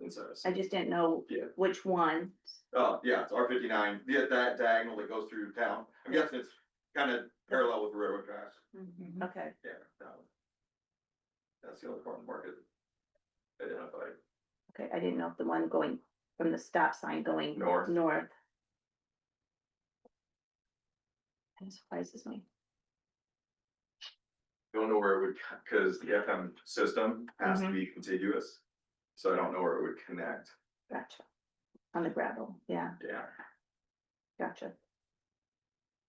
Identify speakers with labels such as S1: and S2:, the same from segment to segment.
S1: in service.
S2: I just didn't know
S1: Yeah.
S2: which one.
S1: Uh, yeah, it's R fifty-nine, yeah, that diagonal that goes through town, I'm guessing it's kind of parallel with the railroad tracks,
S2: Okay,
S1: yeah. that one. That's the only part of the market identified,
S2: okay, I didn't know if the one going from the stop sign going
S1: north.
S2: north. That surprises me.
S1: don't know where it would, co- cause the FM system has to
S2: Mhm.
S1: be contiguous. So I don't know where it would connect,
S2: Gotcha. On the gravel, yeah,
S1: yeah.
S2: gotcha.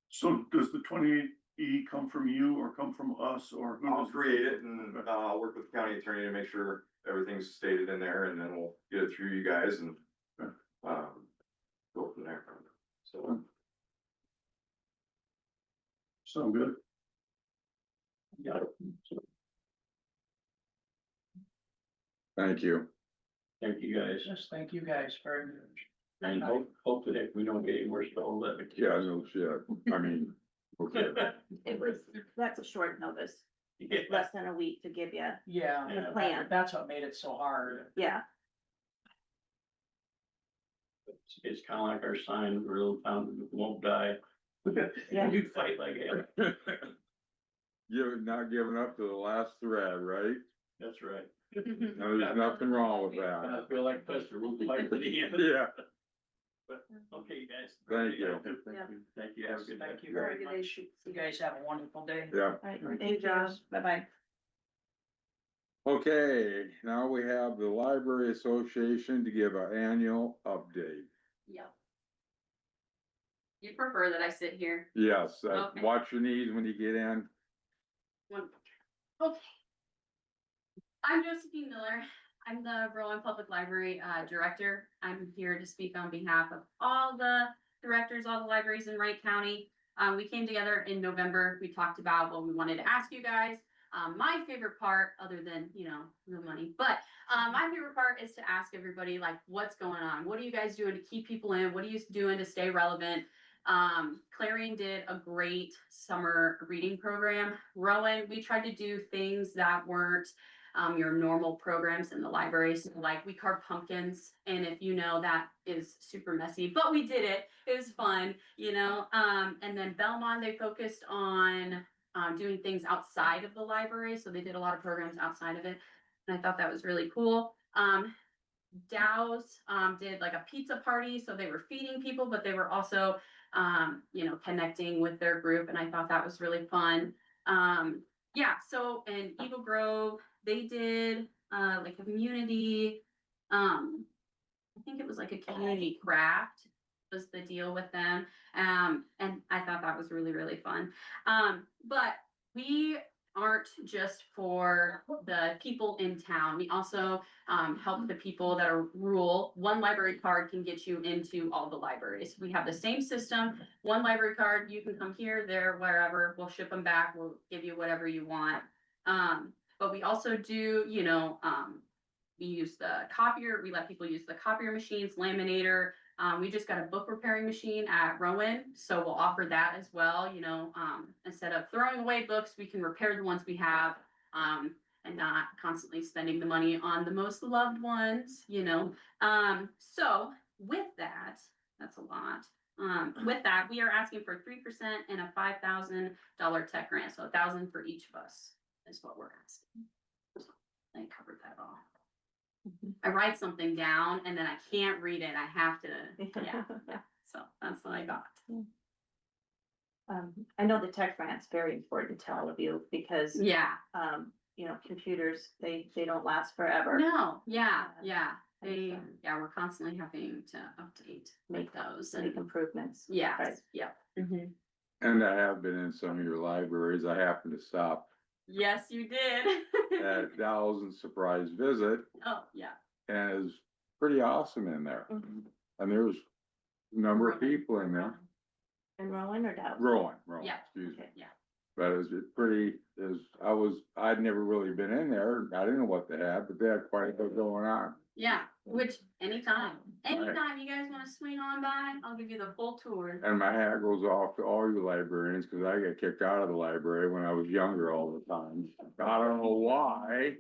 S3: So does the twenty-eight E come from you or come from us or who
S1: I'll
S3: does-
S1: create it and, uh, work with the county attorney to make sure everything's stated in there and then we'll get it through you guys and.
S3: Okay.
S1: Um, go from there, so.
S3: Sound good?
S4: Thank you.
S5: Thank you guys. Yes, thank you guys very much. And hope, hope that we don't get any worse to all of it.
S4: Yeah, no shit. I mean, okay.
S2: It was, that's a short notice,
S5: Yeah,
S2: less than a week to give you,
S6: Yeah,
S5: Yeah.
S6: that- that- that's what made it so hard.
S2: yeah,
S5: It's- It's kind of like our sign, we're little found, we won't die.
S2: Yeah.
S5: You fight like hell.
S4: You're not giving up to the last thread, right?
S5: That's right.
S4: No, there's nothing wrong with
S5: I
S4: that.
S5: feel like Buster, we'll fight to the end.
S4: Yeah,
S5: Okay, guys.
S4: Thank you.
S2: Yeah.
S5: Thank you. Have a good day.
S6: Thank you very much.
S2: regulation.
S6: You guys have a wonderful day.
S4: yeah.
S2: All right,
S6: Thank
S2: thank
S6: you,
S2: you,
S6: Josh.
S2: bye-bye.
S4: Okay, now we have the Library Association to give an annual update.
S7: Yep. You prefer that I sit here?
S4: Yes, uh,
S7: Okay.
S4: watch your knees when you get in.
S7: One- Okay. I'm Josephine Miller. I'm the Berlin Public Library uh, Director. I'm here to speak on behalf of all the directors, all the libraries in Wright County. Um, We came together in November. We talked about what we wanted to ask you guys. Um, My favorite part, other than, you know, the money, but um, my favorite part is to ask everybody, like, what's going on? What are you guys doing to keep people in? What are you doing to stay relevant? Um, Clarion did a great summer reading program. Rowan, we tried to do things that weren't um, your normal programs in the library. So like we carved pumpkins and if you know, that is super messy, but we did it. It was fun, you know? Um, and then Belmont, they focused on um, doing things outside of the library. So they did a lot of programs outside of it. And I thought that was really cool. Um, Dow's um, did like a pizza party. So they were feeding people, but they were also um, you know, connecting with their group, and I thought that was really fun. Um, yeah, so and Eagle Grove, they did uh like a community, um, I think it was like a community craft was the deal with them. Um, and I thought that was really, really fun. Um, but we aren't just for the people in town. We also um, help the people that are rural. One library card can get you into all the libraries. We have the same system. One library card, you can come here, there, wherever. We'll ship them back. We'll give you whatever you want. Um, but we also do, you know, um, we use the copier. We let people use the copier machines, laminator. Um, we just got a book repairing machine at Rowan, so we'll offer that as well. You know, um, instead of throwing away books, we can repair the ones we have. Um, and not constantly spending the money on the most loved ones, you know. Um, so with that, that's a lot. Um,
S2: Mm-hmm.
S7: with that, we are asking for three percent and a five thousand dollar tech grant, so a thousand for each of us is what we're asking. I covered that all. I write something down and then I can't read it. I have to, yeah, yeah. So that's what I got.
S2: Um, I know the tech grant's very important to all of you because,
S7: Yeah,
S2: um, you know, computers, they, they don't last forever.
S7: no, yeah,
S2: Yeah.
S7: yeah. They,
S2: And, um,
S7: yeah, we're constantly having to update, make those and
S2: Make improvements.
S7: Yes,
S2: Right. Mm-hmm.
S7: yeah.
S4: And I have been in some of your libraries. I happened to stop
S7: Yes, you did.
S4: at Dow's and surprise visit
S7: Oh, yeah.
S4: and it's pretty awesome in there.
S2: Mhm.
S4: And there was a number of people in there,
S2: And Rowan or Dow?
S4: growing, growing,
S7: Uh-huh. Yeah.
S4: excuse me.
S7: Yeah.
S4: But it was pretty, it was, I was, I'd never really been in there. I didn't know what they had, but they had quite a bit going on.
S7: Yeah, which anytime,
S4: Right.
S7: anytime you guys wanna swing on by, I'll give you the full tour.
S4: And my hat goes off to all you librarians, cause I got kicked out of the library when I was younger all the time. I don't know why,